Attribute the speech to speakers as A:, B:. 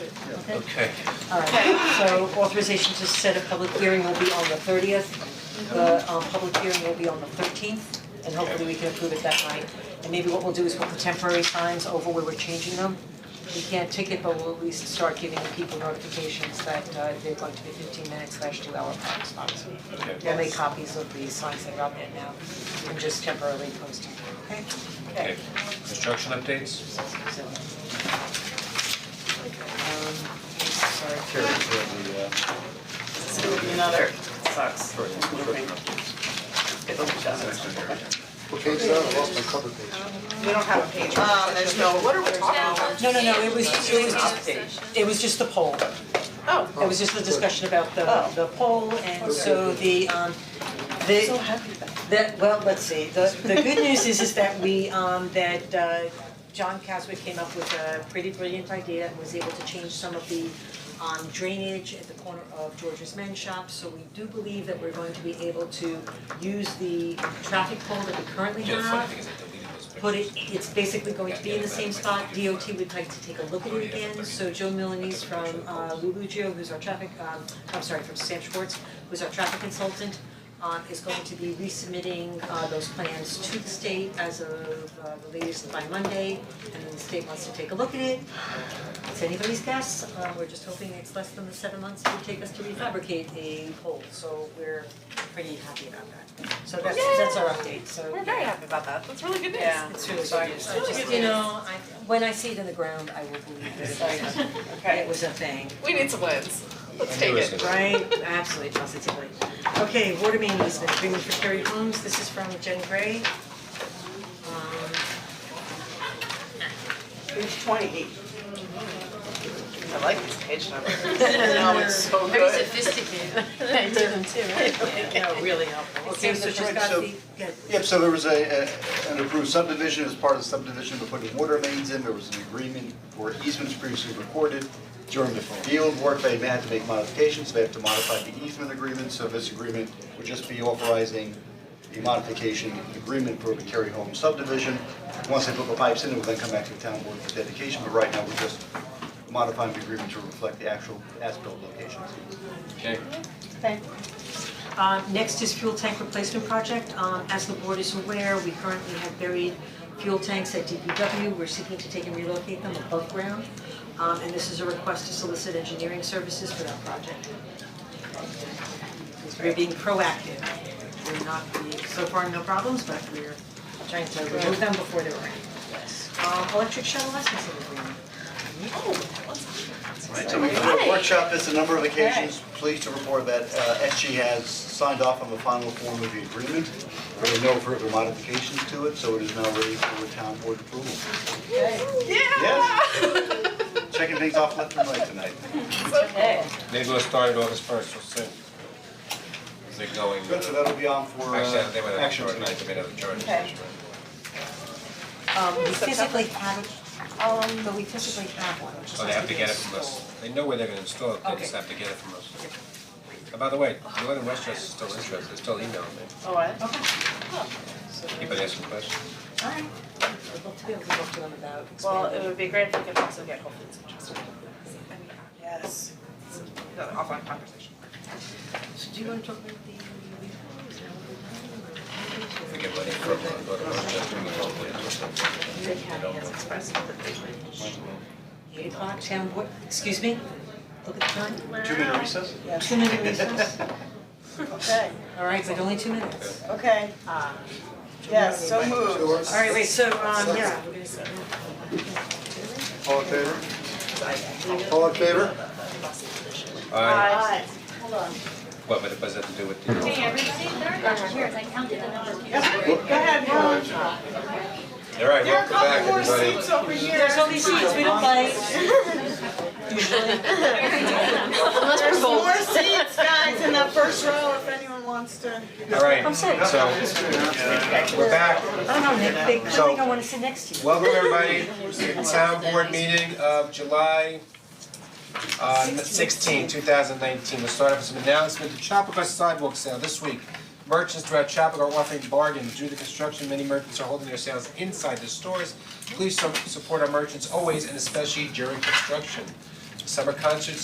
A: Okay,
B: Okay,
A: alright, so authorization to set a public hearing will be on the thirtieth.
B: Mm-hmm.
A: The um public hearing will be on the thirteenth, and hopefully we can approve it that night. And maybe what we'll do is we'll put temporary signs over where we're changing them. We can't ticket, but we'll at least start giving people notifications that uh they're going to be fifteen minutes slash two hour park stops.
B: okay.
A: We'll make copies of the signs that are out there now, and just temporarily post them, okay?
B: Okay, construction updates?
A: So. Um, sorry.
C: This will be another, sucks. It'll be done.
D: Okay, so I lost my cover page.
C: We don't have a page. Um, there's no, what are we talking about?
A: No, no, no, it was, it was just, it was just the poll.
C: Oh,
A: It was just the discussion about the,
C: Oh.
A: the poll, and so the, um, the.
C: so happy about
A: That, well, let's see, the the good news is is that we um that uh John Caswick came up with a pretty brilliant idea and was able to change some of the um drainage at the corner of George's Men's Shop, so we do believe that we're going to be able to use the traffic pole that we currently
B: Yeah,
A: have
B: the funny thing is I deleted those pictures.
A: put it, it's basically going to be in the same spot, DOT would like to take a look at it again, so Joe Milanese from uh Lulugio, who's our traffic, um, I'm sorry, from Sam Schwartz, who's our traffic consultant, um, is going to be resubmitting uh those plans to the state as of uh the latest by Monday, and then the state wants to take a look at it. It's anybody's guess, uh we're just hoping it's less than the seven months it would take us to refabricate a pole, so we're pretty happy about that. So that's that's our update, so.
E: We're very happy about that, that's really good news.
C: Yeah.
A: It's really serious, I
E: really
A: just,
E: good.
A: you know, I, when I see it in the ground, I will believe that it was a, that it
C: Okay.
A: was a thing,
E: We need some wins, let's
B: I
E: take
B: knew it was
E: it.
B: gonna-
A: right? Absolutely, positively. Okay, water main easement, agreement for Perry Homes, this is from Jen Gray. Um,
C: page twenty-eight. I like these page numbers. No, it's so good.
E: sophisticated. I did them too,
C: No, really helpful.
A: okay, so she's
D: right,
A: got
D: so-
A: the, yeah,
D: Yep, so there was a, a- an approved subdivision, as part of the subdivision, they're putting water mains in, there was an agreement where easements previously recorded. During the field work, they may have to make modifications, they have to modify the easement agreement, so this agreement would just be authorizing the modification agreement for the Terry Home subdivision. Once they put the pipes in, it will then come back to the town board for dedication, but right now, we're just modifying the agreement to reflect the actual as-built locations.
B: Okay,
A: Uh, next is fuel tank replacement project. Um, as the board is aware, we currently have buried fuel tanks at DPW. We're seeking to take and relocate them above ground. Um, and this is a request to solicit engineering services for that project. So We're being proactive. We're not, we, so far no problems, but we're trying to remove them before they're ready. Um, electric shuttle licensing agreement.
D: Right, so we can workshop this a number of occasions, pleased to report that uh SG has signed off on the final form of the agreement. There were no further modifications to it, so it is now ready for town board approval. Yes. Checking things off left and right tonight.
B: maybe we'll start it August first, we'll see. Is it going?
D: Good, so that'll be on for uh
B: Actually, I think we have a
D: action
B: short
D: tonight.
B: night, we have a charge.
C: Okay.
A: Um, we physically have, it, um, but we physically have one, which just
B: So Oh, they
A: has
B: have to get it
A: be
B: from us,
A: installed.
B: they know where they're gonna install it, they just
A: Okay.
B: have to get it from us. And by the way, Northern Westchester is still interested, they're still emailing me,
C: Oh, what?
A: Okay.
B: keep on asking questions.
A: Alright, I'd love to be able to talk to them about
C: Well, it
A: expanding.
C: would be great if we could also get hopefully some interest. Yes. Another offline conversation.
A: So do you wanna talk about the?
B: If we get money from uh, Northern Westchester, we probably
A: They have, yes,
C: Express.
A: Eight o'clock, town board, excuse me, look at the time,
D: Two minute recess?
A: two minute recess,
C: Okay, Um,
A: alright, but only two minutes.
C: okay. Yes, so moved.
A: Alright, wait, so, um, yeah, we're gonna see.
D: All in favor? All in favor?
B: Alright,
C: Aye.
B: what, but it has to do with the.
F: everybody, there are chairs, I counted the number of chairs.
C: Go ahead, Helen.
B: Alright,
C: There are a
B: welcome back,
C: couple more
B: everybody.
C: seats over here.
A: There's only seats, we don't bite.
C: There's more seats, guys, in that first row if anyone wants to.
B: Alright,
A: sorry.
B: so, we're back.
A: I don't know, Nick, they, I
B: So-
A: think I wanna sit next to you.
B: Welcome everybody, to the town board meeting of July uh 16, 2019. We'll start off with some announcement, the Chapaka sidewalk sale this week. Merchants throughout Chapaka are offering bargains, due to construction, many merchants are holding their sales inside the stores. Please su- support our merchants always and especially during construction. summer concerts